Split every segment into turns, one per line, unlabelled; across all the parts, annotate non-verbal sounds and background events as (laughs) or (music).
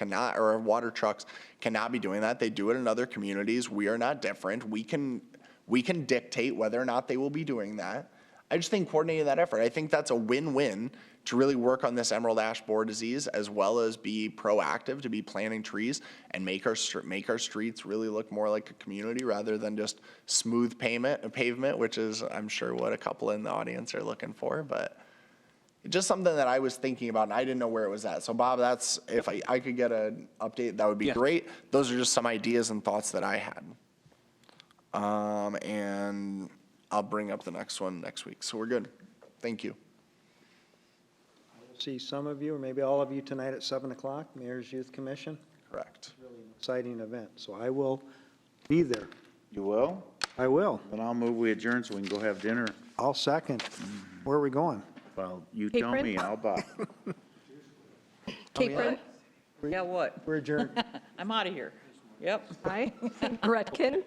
cannot, or water trucks cannot be doing that. They do it in other communities. We are not different. We can, we can dictate whether or not they will be doing that. I just think coordinating that effort, I think that's a win-win to really work on this emerald ash borer disease as well as be proactive to be planting trees and make our, str- make our streets really look more like a community rather than just smooth payment, pavement, which is, I'm sure what a couple in the audience are looking for, but just something that I was thinking about and I didn't know where it was at. So Bob, that's, if I, I could get an update, that would be
Yeah.
great. Those are just some ideas and thoughts that I had. Um, and I'll bring up the next one next week. So we're good. Thank you.
See some of you, or maybe all of you tonight at 7 o'clock, Mayor's Youth Commission,
Correct.
exciting event. So I will be there.
You will?
I will.
Then I'll move we adjourn so we can go have dinner.
I'll second. Where are we going?
Well, you
Hey,
tell
Brent.
me, I'll buy.
Cake bread?
Yeah, what?
We're adjourned.
I'm out of here. Yep.
Aye. (laughs) Rudkin?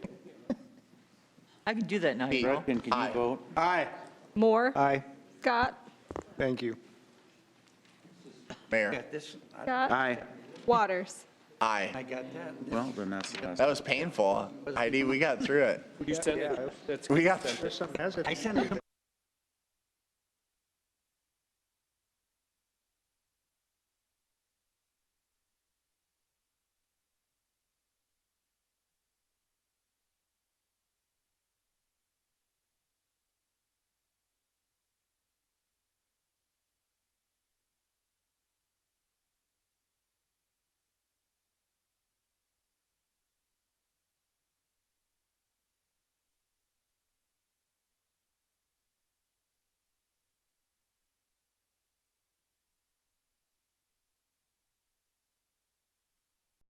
I can do that now, you know?
Gretchen, can
Aye.
you vote?
Aye.
Moore?
Aye.
Scott?
Thank you.
Mayor,
This,
Scott?
aye.
Waters?
aye.
got that. Well, then that's the last.
That was painful. Heidi, we got through it.
You said it. That's
We got,
There's some hesitation.